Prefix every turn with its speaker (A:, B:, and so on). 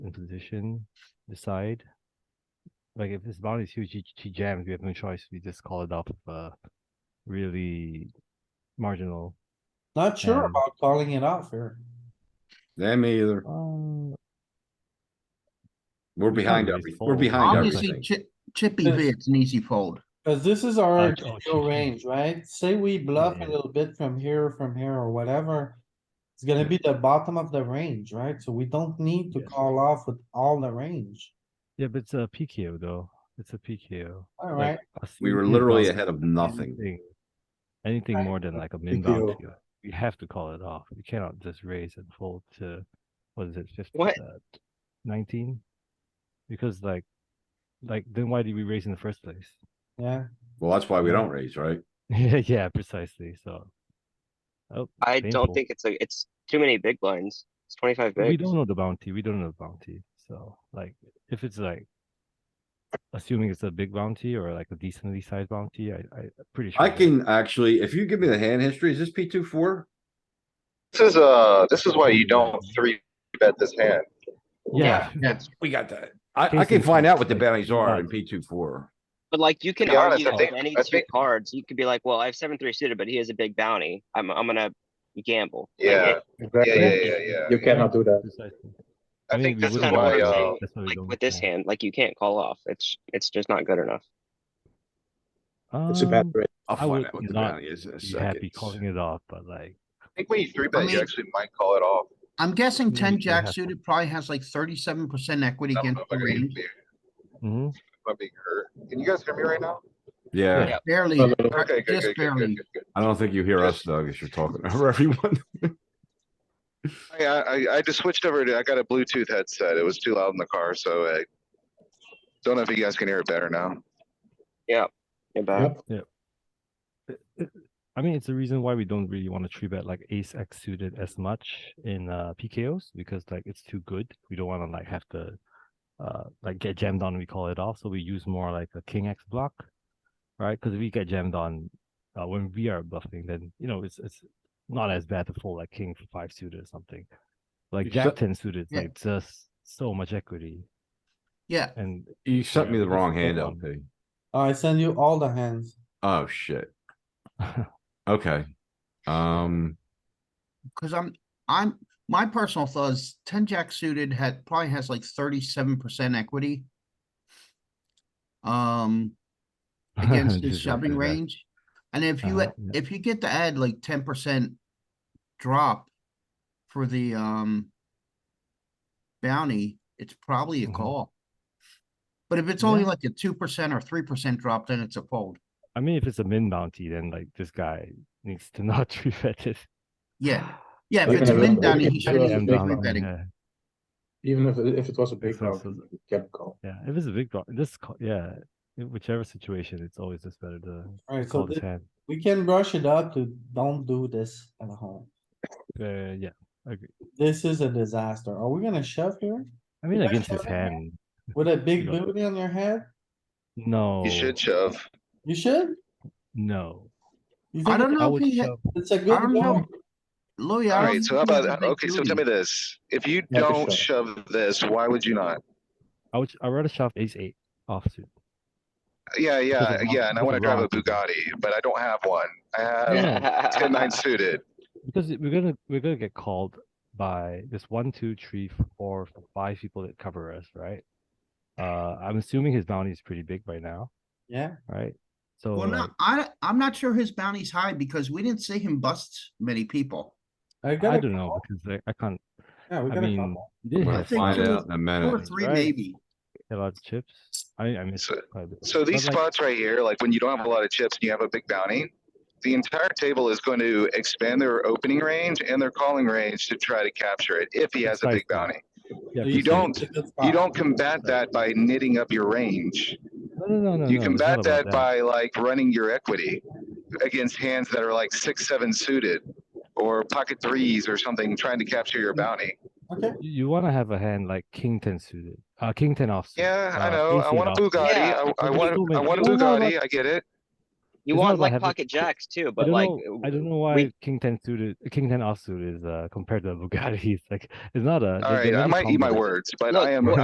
A: in position, decide. Like if this bounty is huge, he, he jams. We have no choice. We just call it off. Uh, really marginal.
B: Not sure
A: Yeah.
B: about calling it off here.
C: Yeah, me either.
A: Uh,
C: We're
A: We
C: behind
A: can't
C: every,
A: raise
C: we're
A: fold.
C: behind
D: Obviously,
C: everything.
D: Chi- Chippy
B: Yeah.
D: V, it's an easy fold.
B: Cause this is our
A: Uh, oh,
B: ideal
A: GG.
B: range, right? Say we bluff
A: Yeah.
B: a little bit from here, from here or whatever. It's gonna be the bottom of the range, right? So we don't need to
A: Yes.
B: call off with all the range.
A: Yeah, but it's a PKO though. It's a PKO.
B: Alright,
C: We were literally ahead of nothing.
A: Anything
B: Right.
A: more than like a min bounty, we have to call it off. We cannot just raise and fold to, what is it,
D: What?
A: fifteen, nineteen? Because like, like then why did we raise in the first place?
B: yeah,
C: Well, that's why we don't raise, right?
A: Yeah, yeah, precisely, so. Oh,
E: I
A: painful.
E: don't think it's a, it's too many big blinds. It's twenty-five
A: we
E: bigs.
A: don't know the bounty, we don't know the bounty, so like, if it's like. Assuming it's a big bounty or like a decently sized bounty, I, I I'm pretty sure.
C: I
A: that-
C: can actually, if you give me the hand history, is this P two four?
F: This is, uh, this is why you don't three bet this hand.
A: Yeah,
D: That's,
C: We got that. I, I
A: Casey
C: can find out what the
A: Fox,
C: bounties are in
A: Fox.
C: P two four.
E: But like, you can
F: be honest,
E: argue
F: I think-
E: on any
F: I
E: two
F: think-
E: cards. You could be like, well, I have seven, three suited, but he has a big bounty. I'm, I'm gonna gamble. Like,
F: Yeah,
E: it-
F: yeah, yeah, yeah, yeah.
G: You cannot do that.
A: precisely.
F: I
A: mean,
F: think
A: we
F: this is
A: wouldn't
E: why,
F: why,
A: want to-
F: uh,
E: uh,
A: that's why we
E: Like
A: don't
E: with this
A: call.
E: hand, like you can't call off. It's, it's just not good enough.
G: It's a bad
A: Um,
G: rate.
C: I'll
A: I
C: find
A: would
C: out what the
A: not
C: bounty is in a
A: be happy
C: second.
A: calling it off, but like,
F: I think when you three
D: I
F: bet,
D: mean-
F: you actually might call it off.
D: I'm guessing
A: Yeah,
D: ten
A: you
G: Mm-hmm.
D: jack
A: have-
D: suited probably has like thirty-seven percent equity
F: I'm
D: against the
F: being
D: range,
A: mhm,
F: hurt. Can you guys hear me right now?
C: Yeah,
A: Yeah.
D: barely,
G: No, no,
D: uh,
F: Okay, good,
D: just
F: good, good, good,
D: barely.
F: good, good.
C: I don't think you hear us, Doug, as you're talking over everyone.
F: I, I, I just switched over to, I got a Bluetooth headset. It was too loud in the car, so I don't know if you guys can hear it better now.
E: You're back.
A: it- it- I mean, it's the reason why we don't really want to tree bet like ace X suited as much in uh PKOs because like it's too good. We don't want to like have to uh like get jammed on. We call it off, so we use more like a king X block, right? Because if we get jammed on uh, when we are bluffing, then you know it's it's not as bad to fold like king five suited or something. Like
C: You
A: jack
C: shut-
A: ten suited, is,
D: Yeah.
A: like just so much equity
D: Yeah,
A: and
C: You sent me the wrong hand
A: Yeah.
C: LP.
B: I send you all the hands.
C: Oh, shit. Okay. Um,
D: cuz I'm, I'm, my personal thought is ten jack suited had, probably has like thirty-seven percent equity. Um, against his
A: Just like
D: shoving
A: that.
D: range. And if you,
A: Uh-huh,
D: a-
A: yeah.
D: if you get to add like ten percent drop for the, um, bounty, it's probably a
A: Mhm.
D: call. But if it's only like a two percent or three percent drop, then it's a fold.
A: I mean, if it's a min bounty, then like this guy needs to not tree bet it.
D: Yeah, yeah,
G: We're
D: if it's a
G: gonna
D: min
G: look-
D: bounty,
G: look
D: he
G: into
D: shouldn't
G: it
D: even
G: and
D: be
G: down
D: three
G: on
D: betting.
A: Yeah,
G: Even if, if it was a big
A: It's also-
G: round, you can call.
A: yeah. If it's a big draw, this co- yeah, in whichever situation, it's always just better to
B: Alright, so
A: call this
B: thi-
A: hand.
B: we can brush it up to don't do this at home.
A: Uh, yeah, I agree.
B: This is a disaster. Are we gonna shove here?
A: I mean,
B: guys
A: against this
B: shove it, man?
A: hand,
B: With a big
A: You got it.
B: booty on your head?
A: no, Oh.
F: You should shove.
B: You should?
A: no.
B: You
D: I
B: think
A: I
D: don't know if
A: would
D: he, had-
A: shove.
B: It's a
D: I
B: good
D: don't know.
B: one?
D: Louis, I
F: All
D: don't.
F: right, so how
D: think he has
F: about,
D: a big
F: okay, so tell
D: booty.
F: me this. If you
G: Yeah, for
F: don't shove this, why would you not?
A: I would. I would rather shove ace eight offsuit.
F: Yeah, yeah,
A: Because of-
F: yeah, and I
A: because
F: wanna
A: of
F: drive a
A: rounds.
F: Bugatti, but I don't have one. I have
A: Yeah.
F: ten nine suited.
A: Because it- we're gonna we're gonna get called by this one, two, three, four, five people that cover us, right? Uh, I'm assuming his bounty is pretty big right now,
B: Yeah,
A: right? So
F: Oh,
D: Well, no,
A: like,
D: I, I'm not sure his bounty's high because we didn't see him bust many people.
B: I
A: I
B: gotta,
A: don't know because like, I can't.
B: yeah, we
A: I
B: gotta
A: mean,
B: call.
A: he
C: I'm
A: did
C: gonna
A: have
D: think
C: find
D: it
C: out in a
D: Two or
C: minute.
D: three
A: right.
D: maybe.
A: a lot of chips. I I missed
F: So-
A: quite a bit.
F: So these
A: but, like,
F: spots right here, like when you don't have a lot of chips and you have a big bounty, the entire table is going to expand their opening range and their calling range to try to capture it if he has a
A: Precisely.
F: big bounty.
A: yeah,
B: So
A: precisely.
F: you don't-
B: it's a good
F: You
B: spot.
F: don't combat that by knitting up your range.
A: No, no, no, no.
F: You
A: no, it's not
F: combat
A: about
F: that by like running your equity against hands that are like six, seven suited or pocket threes or something, trying to capture your bounty.
B: Okay,
A: You, want to have a hand like king ten suited, uh, king ten offsuit.
F: Yeah, I
A: uh,
F: know.
A: ace
F: I
A: eight
F: want a
A: offsuit.
F: Bugatti.
E: Yeah.
F: I, I
A: But
F: want,
A: people
F: I
A: make-
F: want a
A: No, no,
F: Bugatti. I get it.
A: It's not
E: You want
A: that I
E: like
A: have it-
E: pocket jacks too,
A: I
E: but
A: don't
E: like.
A: know, I don't know why
E: we-
A: king ten suited, king ten offsuit is uh, compared to a Bugatti. It's like it's not a.
F: All
A: they're-
F: right,
A: they're
F: I
A: really
F: might eat my
A: combo.
F: words, but
E: Look,
F: I am
E: what-